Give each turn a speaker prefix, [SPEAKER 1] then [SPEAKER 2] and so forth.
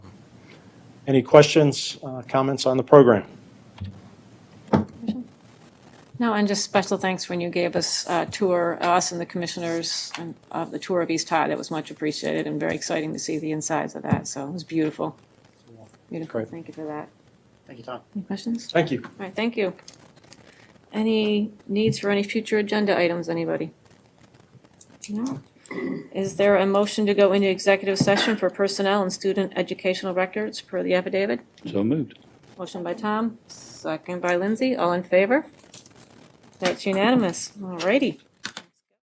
[SPEAKER 1] Any questions, uh, comments on the program?
[SPEAKER 2] No, and just special thanks when you gave us a tour, us and the commissioners, and, uh, the tour of East High. That was much appreciated and very exciting to see the insides of that, so it was beautiful. Beautiful,
[SPEAKER 1] Great.
[SPEAKER 2] thank you for that.
[SPEAKER 1] Thank you, Tom.
[SPEAKER 2] Any questions?
[SPEAKER 1] Thank you.
[SPEAKER 2] All right, thank you. Any needs for any future agenda items, anybody? No? Is there a motion to go into executive session for personnel and student educational records per the affidavit?
[SPEAKER 3] So moved.
[SPEAKER 2] Motion by Tom, second by Lindsay, all in favor? That's unanimous, all righty.